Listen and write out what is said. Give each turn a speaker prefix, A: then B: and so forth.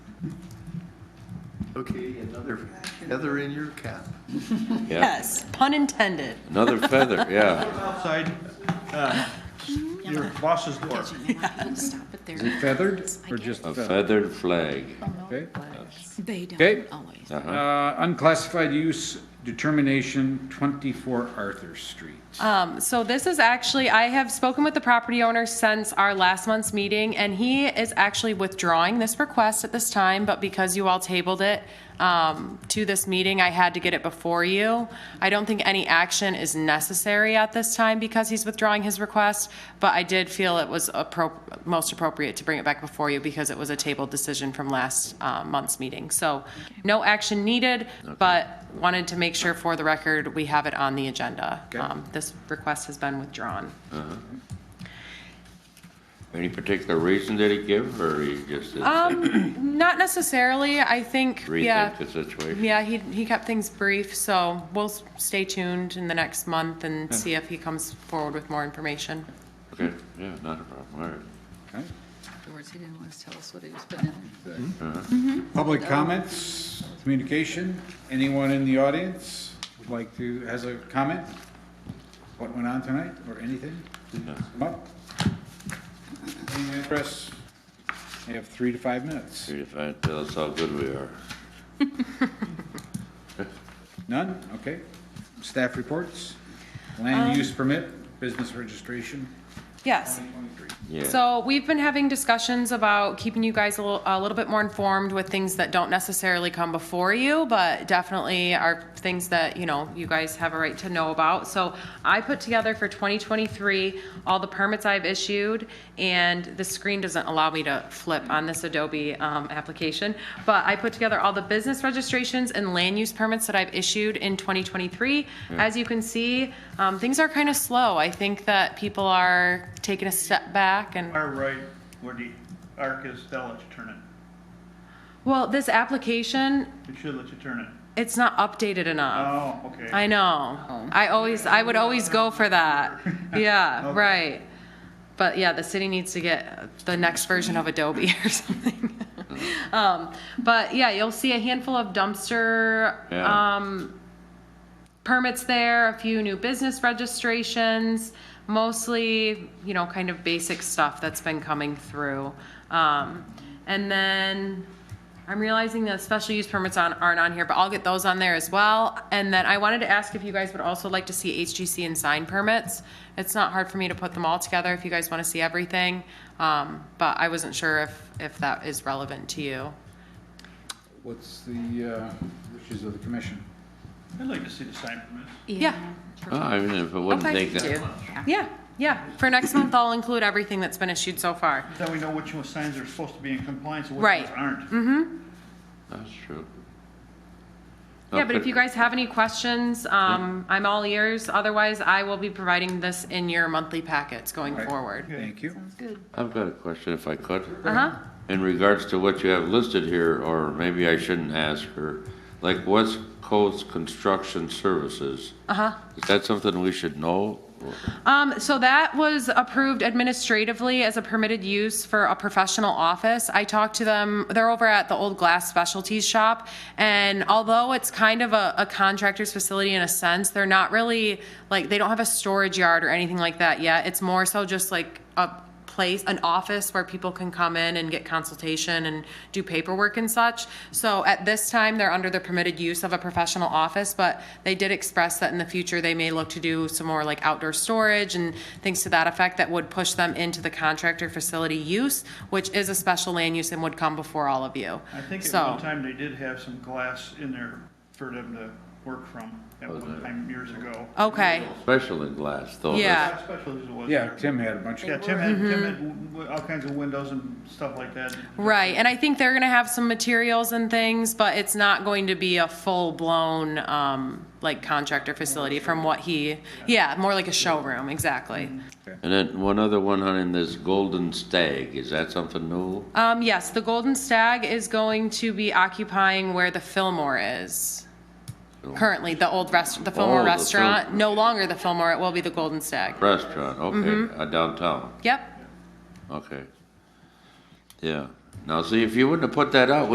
A: Okay, another feather in your cap.
B: Yeah,
C: Yes, pun intended.
B: another feather, yeah.
D: outside uh, your boss's door.
E: Stop it
F: Is
E: there.
F: it feathered or just
B: A
F: feathered?
B: feathered flag.
F: Okay.
E: They
F: Okay.
E: don't always.
B: Uh-huh.
F: Uh, unclassified use determination, twenty-four Arthur Street.
E: Uh,
C: Um, So this is actually, I have spoken with the property owner since our last month's meeting, and he is actually withdrawing this request at this time, but because you all tabled it um, to this meeting, I had to get it before you. I don't think any action is necessary at this time because he's withdrawing his request, but I did feel it was appro- most appropriate to bring it back before you because it was a tabled decision from last uh, month's meeting. So no action needed, but wanted to make sure for the record, we have it on the agenda.
F: Okay.
C: Um, This request has been withdrawn.
B: Any particular reason did he give, or he just did
C: Not necessarily, I think, Um, yeah.
B: rethink the situation?
C: Yeah, he, he kept things brief, so we'll s- stay tuned in the next month and see if he comes forward with more information.
B: Okay, yeah, not a problem, all right.
F: Okay.
E: Afterwards, he didn't want to tell us what he was putting in.
F: Public comments, communication, anyone in the audience would like to, has a comment? What went on tonight, or anything? Come up. Any address? You have three to five minutes.
B: Here, if I tell us how good we are.
F: None? Okay. Staff reports,
E: Um,
F: land use permit, business registration,
C: Yes.
B: Yeah.
C: So we've been having discussions about keeping you guys a little, a little bit more informed with things that don't necessarily come before you, but definitely are things that, you know, you guys have a right to know about. So I put together for 2023, all the permits I've issued, and the screen doesn't allow me to flip on this Adobe um, application, but I put together all the business registrations and land use permits that I've issued in 2023. As you can see, um, things are kind of slow. I think that people are taking a step back and
D: Far right where the arc is, they'll let you turn it.
C: Well, this application,
D: It should let you turn it.
C: it's not updated enough.
D: Oh, okay. Oh.
C: I know. I always, I would always go for that. Yeah,
D: Okay.
C: right. But yeah, the city needs to get the next version of Adobe or something.
D: Oh.
C: Um, but yeah, you'll see a handful of dumpster,
B: Yeah.
C: um, permits there, a few new business registrations, mostly, you know, kind of basic stuff that's been coming through. Um, and then I'm realizing that special use permits on, aren't on here, but I'll get those on there as well. And then I wanted to ask if you guys would also like to see HGC and sign permits. It's not hard for me to put them all together if you guys want to see everything. Um, but I wasn't sure if, if that is relevant to you.
F: What's the uh, wishes of the commission?
D: I'd like to see the sign permits.
C: Yeah.
B: Oh, I mean, if it wouldn't
C: Okay.
B: take that
C: Do.
B: much.
C: Yeah, yeah. For next month, I'll include everything that's been issued so far.
D: Then we know which ones signs are supposed to be in compliance and which
C: Right. Mm-hmm.
D: ones aren't.
B: That's true.
C: Yeah, but if
B: Okay.
C: you guys have any questions, um, I'm all ears. Otherwise, I will be providing this in your monthly packets going
F: Right.
C: forward.
F: Thank you.
B: I've got a question if I could.
C: Uh-huh.
B: In regards to what you have listed here, or maybe I shouldn't ask her, like West Coast Construction Services. Uh-huh. Is that something we should know?
C: Um, so that was approved administratively as a permitted use for a professional office. I talked to them, they're over at the Old Glass Specialties Shop, and although it's kind of a, a contractor's facility in a sense, they're not really, like, they don't have a storage yard or anything like that yet. It's more so just like a place, an office where people can come in and get consultation and do paperwork and such. So at this time, they're under the permitted use of a professional office, but they did express that in the future, they may look to do some more like outdoor storage and things to that effect that would push them into the contractor facility use, which is a special land use and would come before all of you.
D: I think at
C: So-
D: one time they did have some glass in there for them to work from at one time years ago.
C: Okay,
B: Special in glass, though.
C: Yeah.
D: How special it was.
F: Yeah, Tim had a bunch of.
D: Yeah, Tim had, Tim had w-
C: mm-hmm.
D: w- all kinds of windows and stuff like that.
C: right. And I think they're gonna have some materials and things, but it's not going to be a full-blown, um, like contractor facility from what he, yeah, more like a showroom, exactly.
B: And then one other one on in this Golden Stag, is that something new?
C: Um, yes, the Golden Stag is going to be occupying where the Fillmore is. Currently, the old rest, the
B: Oh,
C: Fillmore
B: the Fil-
C: restaurant, no longer the Fillmore, it will be the Golden Stag.
B: Restaurant, okay, uh, downtown,
C: Yep.
B: okay. Yeah, now see, if you wouldn't have put that out,